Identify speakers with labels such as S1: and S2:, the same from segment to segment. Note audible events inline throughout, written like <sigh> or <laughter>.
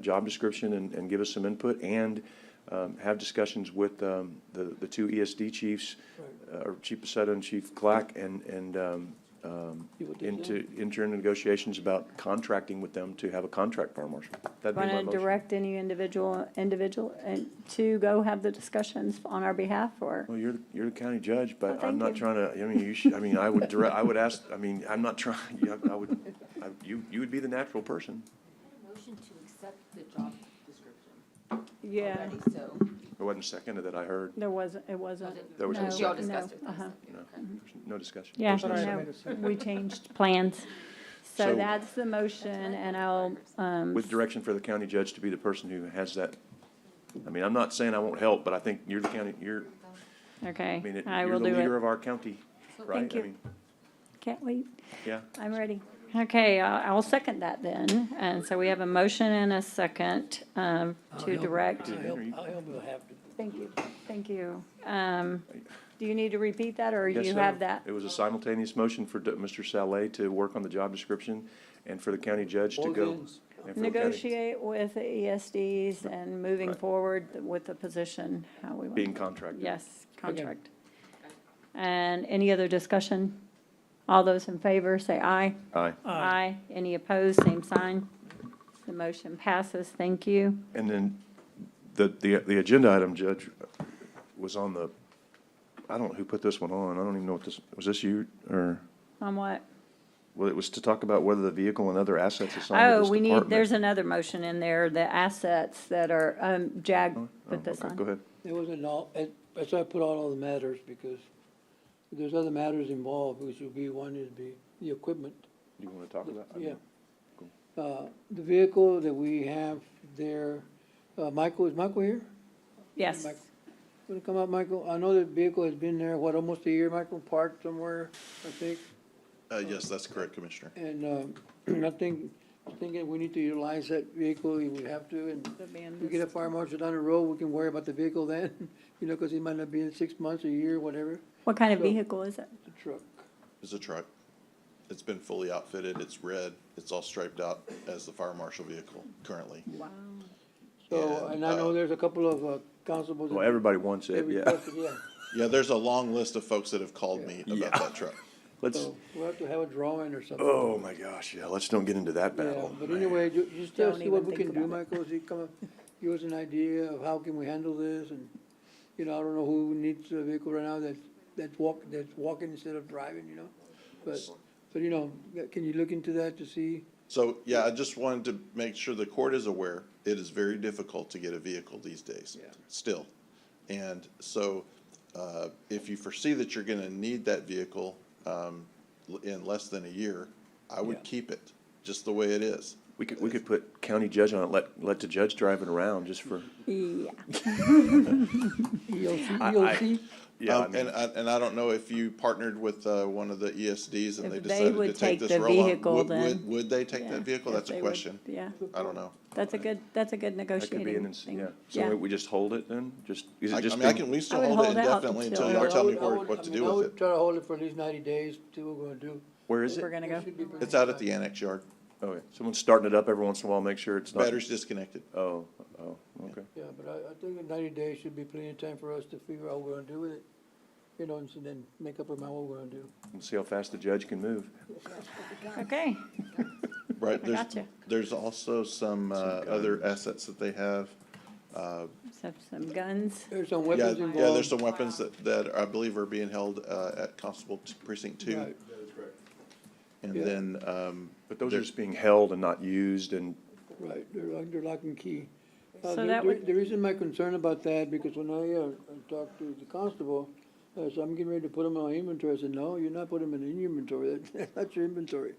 S1: job description and, and give us some input and um, have discussions with um, the, the two ESD chiefs, uh, or Chief Pacetta and Chief Clack, and, and um, um,
S2: You would do
S1: into, enter into negotiations about contracting with them to have a contract fire marshal. That'd be
S3: Want
S1: my
S3: to
S1: motion.
S3: direct any individual, individual, and to go have the discussions on our behalf, or?
S1: Well, you're, you're the county judge, but
S3: Well,
S1: I'm not
S3: Oh, thank you.
S1: trying to, I mean, you should, I mean, I would direct, I would ask, I mean, I'm not trying, <laughs> yeah, I would, I- you, you would be the natural person.
S4: Motion to accept the job description.
S3: Yeah,
S4: already, So,
S1: There wasn't a second that I heard,
S3: there wasn't, it wasn't.
S1: There was no
S3: No,
S4: Y'all
S1: second.
S4: discussed it.
S3: no, uh-huh.
S1: <laughs> no, there's no discussion.
S3: Yeah,
S1: There's no second.
S3: no, we changed plans.
S1: So-
S3: So that's the motion, and I'll, um,
S1: With direction for the county judge to be the person who has that, I mean, I'm not saying I won't help, but I think you're the county, you're, I
S3: okay,
S1: mean, it-
S3: I
S1: you're
S3: will
S1: the leader
S3: do it.
S1: of our county, right?
S3: Thank
S1: I
S3: you.
S1: mean,
S3: Can't wait,
S1: Yeah,
S3: I'm ready. Okay, I- I'll second that then, and so we have a motion and a second um, to direct.
S2: I'll help, I'll help you have to.
S3: Thank you, thank you. Um, Do you need to repeat that, or
S1: Yes,
S3: you
S1: sir.
S3: have that?
S1: It was a simultaneous motion for D- Mr. Saleh to work on the job description and for the county judge to
S2: Both
S1: go.
S2: ends.
S1: and for the county-
S3: Negotiate with the ESDs and moving
S1: Right.
S3: forward with the position, how we want.
S1: Being contracted.
S3: Yes, contract. And any other discussion? All those in favor, say aye.
S1: Aye.
S3: Aye. Any opposed, same sign. The motion passes, thank you.
S1: And then the, the, the agenda item, Judge, was on the, I don't know who put this one on. I don't even know what this, was this you or?
S3: On what?
S1: Well, it was to talk about whether the vehicle and other assets assigned to
S3: Oh,
S1: this department.
S3: we need, there's another motion in there, the assets that are, um, JAG
S1: Oh,
S3: put this
S1: okay,
S3: on.
S1: Go ahead.
S2: It wasn't all, it- that's why I put on all the matters, because there's other matters involved, which would be, one is be the equipment,
S1: You want to talk about? I don't
S2: yeah.
S1: know.
S2: Uh, the vehicle that we have there, uh, Michael, is Michael here?
S3: Yes,
S2: Mike- Wanna come up, Michael? I know the vehicle has been there, what, almost a year, Michael, parked somewhere, I think?
S5: Uh, yes, that's correct, Commissioner.
S2: And, um, <clears throat> I think, I think that we need to utilize that vehicle, we have to, and if we get a fire marshal down the road, we can worry about the vehicle then, <laughs> you know, because he might not be in six months, a year, whatever,
S3: what kind of
S2: So-
S3: vehicle is it?
S2: the truck.
S5: It's a truck. It's been fully outfitted. It's red. It's all striped out as the fire marshal vehicle currently.
S3: Wow.
S2: So,
S5: And,
S2: and I know
S5: uh,
S2: there's a couple of uh, constables.
S1: Well, everybody wants
S2: that
S1: it, Oh, yeah.
S2: requested, Yeah,
S5: Yeah, there's a long list of folks that have called me
S1: Yeah.
S5: about that truck.
S1: <laughs> Let's,
S2: so we'll have to have a drawing or something.
S1: oh my gosh, yeah, let's don't get into that
S2: Yeah,
S1: battle.
S2: but
S1: man.
S2: anyway, you, you still
S3: Don't
S2: see what
S3: even
S2: we can
S3: think
S2: do,
S3: about
S2: Michael, see, come up, give us an idea of how can we handle this, and, you know, I don't know who needs a vehicle right now that's, that's walk, that's walking instead of driving, you know? But, so, you know, can you look into that to see?
S5: So, yeah, I just wanted to make sure the court is aware, it is very difficult to get a vehicle these days.
S2: Yeah.
S5: Still. And so, uh, if you foresee that you're gonna need that vehicle, um, l- in less than a year, I
S2: Yeah.
S5: would keep it, just the way it is.
S1: We could, we could put county judge on it, let, let the judge drive it around just for,
S3: Yeah,
S2: ELC,
S1: I-
S2: ELC,
S1: yeah, I
S5: Um, and
S1: mean,
S5: I, and I don't know if you partnered with, uh, one of the ESDs and
S3: If
S5: they
S3: they
S5: decided
S3: would
S5: to
S3: take
S5: take this
S3: the
S5: roll on.
S3: vehicle,
S5: Would-
S3: then-
S5: would- Would they take
S3: yeah,
S5: that vehicle?
S3: if
S5: That's a
S3: they would-
S5: question.
S3: yeah.
S5: I don't know.
S3: That's a good, that's a good
S1: that could be an,
S3: negotiating
S1: ins-
S3: thing.
S1: yeah. So we just hold it then? Just, is
S5: I, I
S1: it just?
S5: mean, I
S1: being-
S5: can, we
S3: I
S5: still
S3: would
S5: hold it
S3: hold it out
S5: indefinitely
S3: until-
S5: until
S2: Yeah, I
S5: y'all tell me
S2: would- I
S5: where-
S2: would- I
S5: what to
S2: mean,
S5: do
S2: I
S5: with
S2: would
S5: it.
S2: Try to hold it for at least ninety days, see what we're gonna do.
S1: Where is
S3: We're
S1: it?
S3: gonna
S2: That
S3: go,
S2: should be pretty
S5: It's out at the
S3: <laughs>
S5: annex yard.
S1: Okay, someone's starting it up every once in a while, make sure it's not.
S5: Battery's disconnected.
S1: Oh, oh, okay.
S2: Yeah, but I, I think that ninety days should be plenty of time for us to figure out what we're gonna do with it, you know, and so then make up our mind what we're gonna do.
S1: Let's see how fast the judge can move.
S3: Okay,
S5: Right, there's,
S3: gotcha.
S5: there's also some, uh, other assets that they have. Uh,
S3: so some guns.
S2: There's some
S5: yeah,
S2: weapons involved.
S5: yeah, there's some weapons that, that I believe are being held, uh, at Constable t- Precinct Two.
S2: Right.
S5: And
S2: Yeah.
S5: then, um,
S1: But those are
S5: There's-
S1: just being held and not used and
S2: Right, they're under lock and key. Uh,
S3: So
S2: the-
S3: that
S2: the-
S3: would-
S2: The reason my concern about that, because when I, uh, I talked to the constable, uh, so I'm getting ready to put them on inventory, I said, no, you're not putting them in your inventory, <laughs> That- that's not your inventory.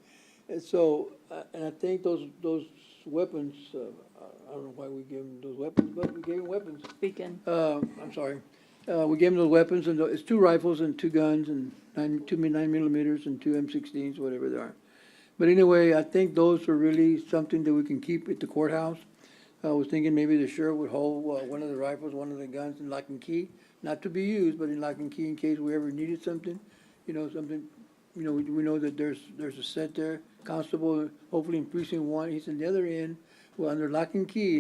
S2: And so, uh, and I think those, those weapons, uh, I- I don't know why we gave them those weapons, but we gave them weapons.
S3: Beacon.
S2: Uh, I'm sorry. Uh, we gave them those weapons and tho- it's two rifles and two guns and nine, two mi- nine millimeters and two M sixteens, whatever they are. But anyway, I think those are really something that we can keep at the courthouse. I was thinking maybe the sheriff would hold, uh, one of the rifles, one of the guns in lock and key, not to be used, but in lock and key in case we ever needed something. You know, something, you know, we, we know that there's, there's a set there, constable, hopefully in precinct one, he's in the other end. well, under lock and key,